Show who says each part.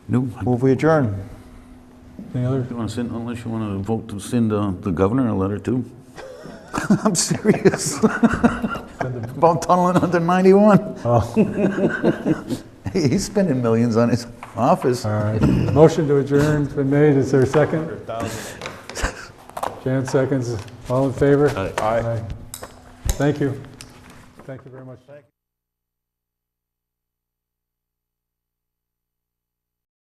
Speaker 1: No,
Speaker 2: Move we adjourn.
Speaker 3: Any other?
Speaker 1: you want to send, unless you want to vote to send uh, the governor a letter too?
Speaker 2: I'm serious. About tunneling under 91.
Speaker 3: Oh,
Speaker 2: Oh. He- He's spending millions on his office.
Speaker 3: all right. Motion to adjourn's been made. Is there a second? Jan seconds. All in favor? Aye. Thank you. Thank you very much.